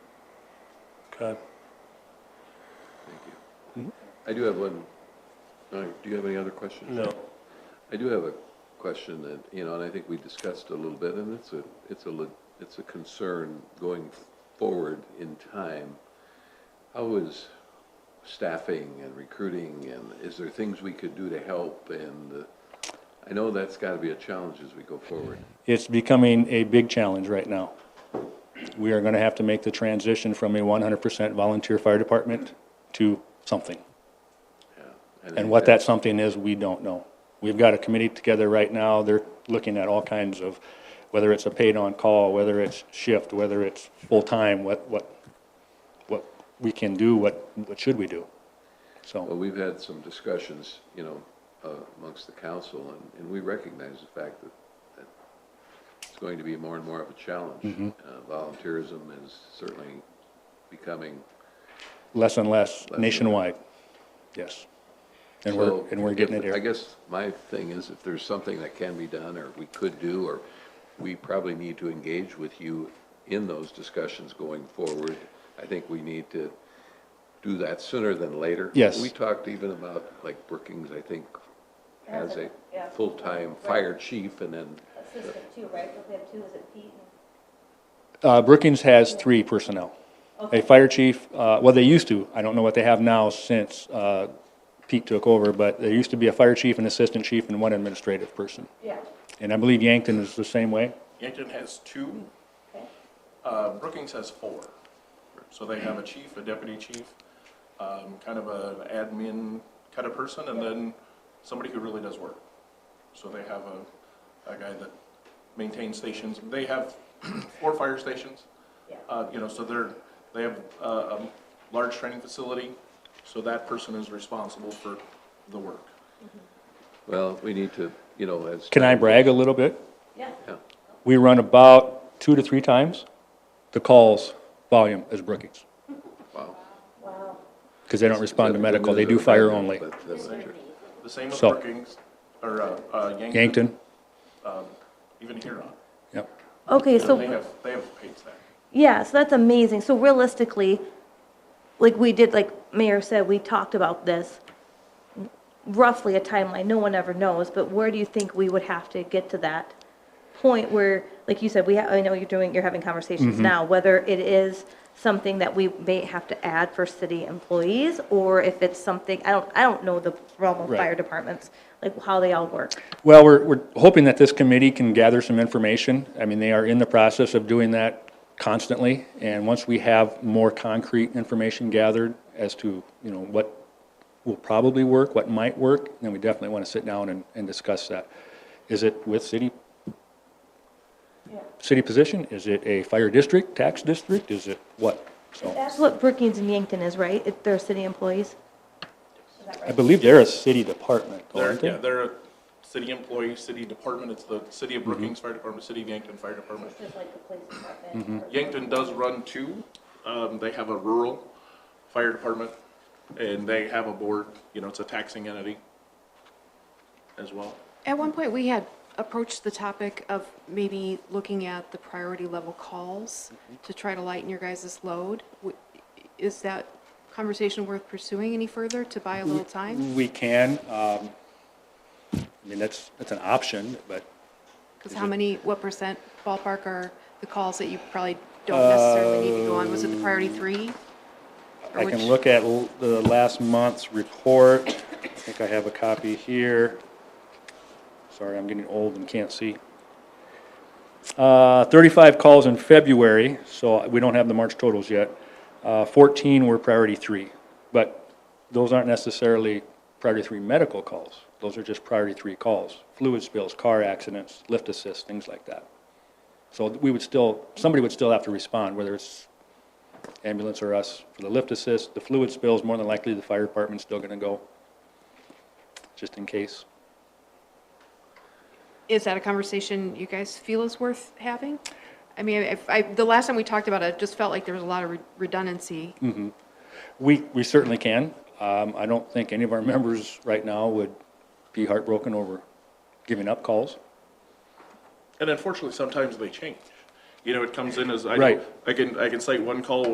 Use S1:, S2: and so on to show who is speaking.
S1: Uh,
S2: Thank you. I do have one, all right, do you have any other questions?
S1: No,
S2: I do have a question that, you know, and I think we discussed a little bit, and it's a, it's a, le- it's a concern going forward in time. How is staffing and recruiting, and is there things we could do to help? And uh, I know that's gotta be a challenge as we go forward.
S1: it's becoming a big challenge right now. We are going to have to make the transition from a 100% volunteer fire department to something.
S2: Yeah.
S1: And what that something is, we don't know. We've got a committee together right now, they're looking at all kinds of, whether it's a paid-on-call, whether it's shift, whether it's full-time, what, what, what we can do, what, what should we do?
S2: Well,
S1: So,
S2: we've had some discussions, you know, uh, amongst the council, and, and we recognize the fact that, that it's going to be more and more of a challenge. Uh, Volunteerism is certainly becoming,
S1: less and less
S2: and less.
S1: nationwide, yes. And we're,
S2: so
S1: and we're
S2: if-
S1: getting it
S2: I
S1: here.
S2: guess my thing is, if there's something that can be done, or we could do, or we probably need to engage with you in those discussions going forward, I think we need to do that sooner than later.
S1: Yes.
S2: We talked even about, like Brookings, I think, has a
S3: Yeah.
S2: full-time fire chief, and then,
S3: Assistant two, right? Don't we have two, is it Pete
S1: Uh, Brookings has three personnel.
S3: and?
S1: A fire chief, uh, well, they used to, I don't know what they have now since, uh, Pete took over, but there used to be a fire chief, an assistant chief, and one administrative person.
S3: Yeah,
S1: And I believe Yankton is the same way.
S4: Yankton has two,
S3: okay.
S4: uh, Brookings has four. So they have a chief, a deputy chief, um, kind of an admin kind of person, and then somebody who really does work. So they have a, a guy that maintains stations, they have four fire stations.
S3: Yeah.
S4: Uh, you know, so they're, they have a, a large training facility, so that person is responsible for the work.
S2: well, we need to, you know, as.
S1: Can I brag a little bit?
S3: Yeah,
S2: Yeah,
S1: We run about two to three times the calls volume as Brookings,
S2: wow.
S3: wow.
S1: because they don't respond to
S2: Yeah,
S1: medical, they
S2: women
S1: do
S2: are
S1: fire
S2: better,
S1: only.
S2: but that's not true.
S4: The same with
S1: So-
S4: Brookings, or, uh, uh, Yankton,
S1: Yankton,
S4: even Huron.
S1: yep.
S5: Okay,
S4: They
S5: so,
S4: have, they have paid staff.
S5: yeah, so that's amazing. So realistically, like we did, like Mayor said, we talked about this, roughly a timeline, no one ever knows, but where do you think we would have to get to that point where, like you said, we, ha- I know you're doing, you're having conversations now, whether it is something that we may have to add for city employees, or if it's something, I don't, I don't know the realm of
S1: Right.
S5: fire departments, like how they all work.
S1: Well, we're, we're hoping that this committee can gather some information. I mean, they are in the process of doing that constantly. And once we have more concrete information gathered as to, you know, what will probably work, what might work, then we definitely want to sit down and, and discuss that. Is it with city? City position? Is it a fire district, tax district? Is it what? So
S5: That's what Brookings and Yankton is, right? If They're city employees?
S1: I believe they're a city department, though,
S4: They're,
S1: aren't
S4: yeah,
S1: they?
S4: they're a city employee, city department, it's the city of Brookings
S1: Mm-hmm.
S4: Fire Department, city of Yankton Fire Department.
S3: It's just like the police department.
S4: Yankton does run two, um, they have a rural fire department, and they have a board, you know, it's a taxing entity as well.
S6: At one point, we had approached the topic of maybe looking at the priority level calls to try to lighten your guys' load. W- Is that conversation worth pursuing any further to buy a little time?
S1: We can, um, I mean, that's, that's an option, but
S6: Because how many, what percent ballpark are the calls that you probably don't necessarily need to go on? Was it the priority three? Or
S1: I can
S6: which-
S1: look at l- the last month's report. I think I have a copy here. Sorry, I'm getting old and can't see. Uh, 35 calls in February, so we don't have the March totals yet. Uh, 14 were priority three, but those aren't necessarily priority three medical calls. Those are just priority three calls, fluid spills, car accidents, lift assist, things like that. So we would still, somebody would still have to respond, whether it's ambulance or us for the lift assist. The fluid spills, more than likely, the fire department's still gonna go, just in case.
S6: Is that a conversation you guys feel is worth having? I mean, if, I, the last time we talked about it, it just felt like there was a lot of re- redundancy.
S1: We, we certainly can. Um, I don't think any of our members right now would be heartbroken over giving up calls.
S4: And unfortunately, sometimes they change. You know, it comes in as, I,
S1: Right.
S4: know- I can, I can cite one call